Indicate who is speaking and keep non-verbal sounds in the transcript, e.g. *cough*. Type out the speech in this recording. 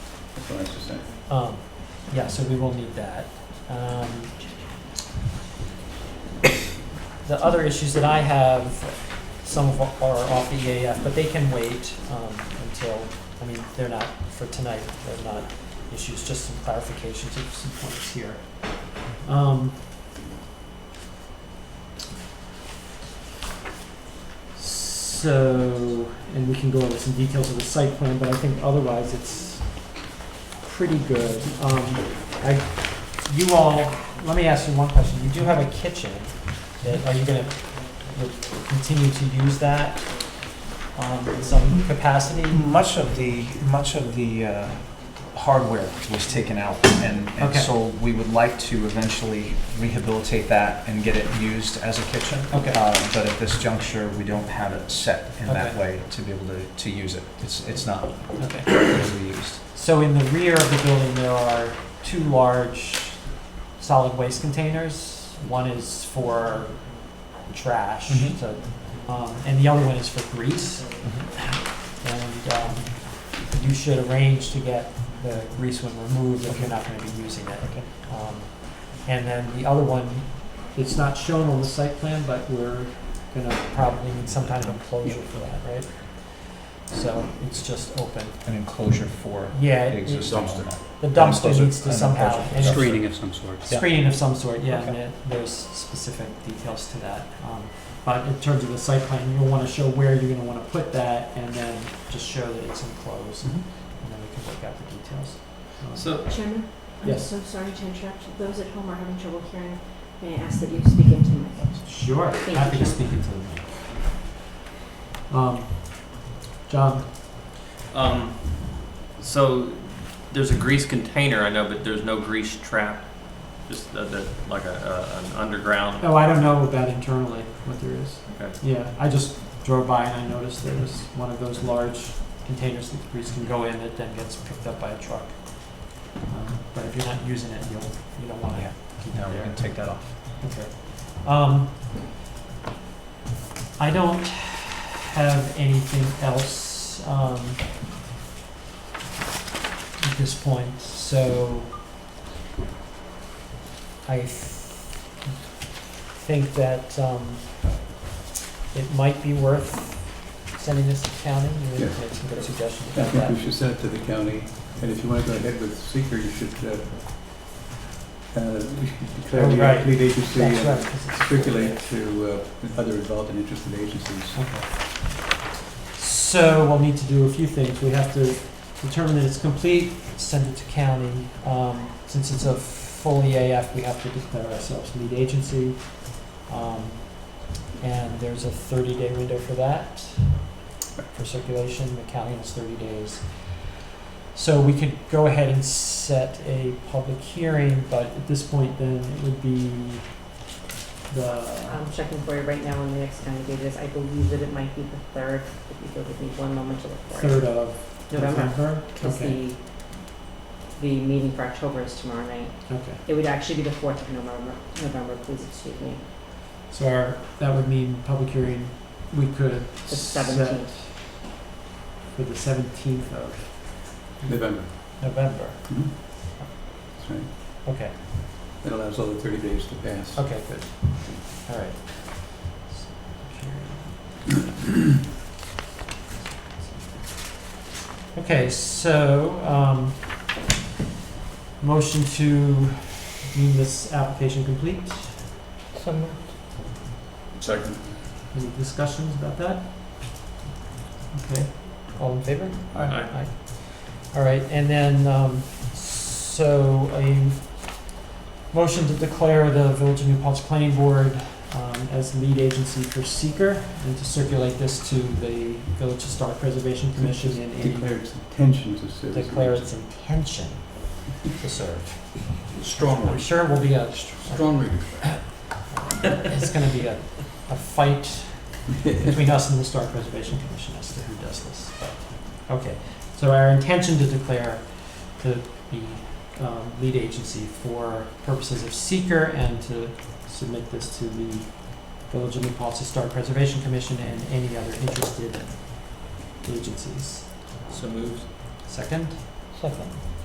Speaker 1: what I was just saying.
Speaker 2: Um, yeah, so we will need that. Um, the other issues that I have, some of are off the EAF, but they can wait, um, until, I mean, they're not for tonight, they're not issues, just some clarifications of some points here. Um, so, and we can go over some details of the site plan, but I think otherwise it's pretty good. Um, I, you all, let me ask you one question. You do have a kitchen. that- Are you gonna you'll continue to use that um, in some capacity?
Speaker 3: Much of the, much of the uh, hardware was taken out, and, and
Speaker 2: Okay.
Speaker 3: so we would like to eventually rehabilitate that and get it used as a kitchen.
Speaker 2: Okay.
Speaker 3: Uh, But at this juncture, we don't have it set in that
Speaker 2: Okay.
Speaker 3: way to be able to, to use it. It's, it's not
Speaker 2: Okay.
Speaker 3: easily used.
Speaker 2: So in the rear of the building, there are two large solid waste containers. One is for trash,
Speaker 3: Mhm.
Speaker 2: so, um, and the other one is for grease. And um, you should arrange to get the grease one removed if you're not going to be using it.
Speaker 3: Okay.
Speaker 2: Um, And then the other one, it's not shown on the site plan, but we're going to probably need some kind of enclosure for that, right? So it's just open.
Speaker 3: An enclosure for
Speaker 2: Yeah,
Speaker 3: the
Speaker 2: it- it-
Speaker 3: existing
Speaker 1: Dumpster.
Speaker 3: home.
Speaker 2: the dumpster
Speaker 3: Enclosure-
Speaker 2: needs to
Speaker 3: an
Speaker 2: somehow,
Speaker 3: enclosure.
Speaker 2: and it's-
Speaker 1: Screening of some sort.
Speaker 3: Yeah.
Speaker 2: screening of some sort, yeah, and
Speaker 3: Okay.
Speaker 2: it- there's specific details to that. Um, But in terms of the site plan, you'll wanna show where you're gonna wanna put that, and then just show that it's enclosed,
Speaker 3: Mhm.
Speaker 2: and then we can work out the details. Um,
Speaker 1: So,
Speaker 4: Chairman, I'm
Speaker 2: Yes.
Speaker 4: so sorry to interrupt. Those at home are having trouble hearing. May I ask that you speak into the mic?
Speaker 2: Sure,
Speaker 4: Thank
Speaker 2: happy
Speaker 4: you,
Speaker 2: to speak into the mic. Um, John,
Speaker 5: Um, so there's a grease container, I know, but there's no grease trap. Just uh, the, like a, uh, an underground.
Speaker 2: oh, I don't know about internally what there is.
Speaker 5: Okay.
Speaker 2: Yeah, I just drove by and I noticed there was one of those large containers that the grease can go in that then gets picked up by a truck. Um, But if you're not using it, you'll, you don't want
Speaker 3: Yeah.
Speaker 2: to keep it
Speaker 3: No, we
Speaker 2: there.
Speaker 3: can take that off.
Speaker 2: Okay. Um, I don't have anything else, um, at this point, so I th- think that, um, it might be worth sending this to county, you
Speaker 1: Yes.
Speaker 2: had made some good suggestions
Speaker 1: I
Speaker 2: about that.
Speaker 1: think we should send it to the county, and if you want to go ahead with seeker, you should, uh, uh, we should declare
Speaker 2: Oh,
Speaker 1: the
Speaker 2: right.
Speaker 1: lead agency
Speaker 2: That's right,
Speaker 1: and
Speaker 2: 'cause it's-
Speaker 1: uh, circulate to uh, other involved and interested agencies.
Speaker 2: Okay. So we'll need to do a few things. We have to determine that it's complete, send it to county. Um, since it's a full EAF, we have to declare ourselves lead agency. Um, and there's a thirty day window for that, for circulation. The county has thirty days. So we could go ahead and set a public hearing, but at this point then it would be the,
Speaker 4: I'm checking for you right now on the next county date is. I believe that it might be the third. If you go with me one moment to look for it.
Speaker 2: third of
Speaker 4: November
Speaker 2: November?
Speaker 4: is
Speaker 2: Okay.
Speaker 4: the, the meeting for October is tomorrow night.
Speaker 2: Okay,
Speaker 4: It would actually be the fourth of November, November, please excuse me,
Speaker 2: so our, that would mean public hearing, we could
Speaker 4: the
Speaker 2: set
Speaker 4: seventeenth.
Speaker 2: for the seventeenth of
Speaker 1: November,
Speaker 2: November.
Speaker 1: that's right.
Speaker 2: Okay,
Speaker 1: That allows all the 30 days to pass.
Speaker 2: okay, good, all right. Okay, so, um, motion to deem this application complete?
Speaker 1: Second.
Speaker 2: Any discussions about that? Okay, all in favor?
Speaker 1: Aye.
Speaker 2: Aye. All right, and then, um, so a motion to declare the Village of New Paltz Planning Board, um, as lead agency for seeker and to circulate this to the Village Historic Preservation Commission in any
Speaker 1: Declare its intention to serve. as an
Speaker 2: declare its intention to serve.
Speaker 1: agency. Strong
Speaker 2: I'm sure it will be a,
Speaker 1: Strongly.
Speaker 2: *laughs* it's gonna be a, a fight between us and the Historic Preservation Commission as to who does this. but- Okay, so our intention to declare to be um, lead agency for purposes of seeker and to submit this to the Village of New Paltz Historic Preservation Commission and any other interested agencies.
Speaker 5: So moved.
Speaker 2: Second? Second.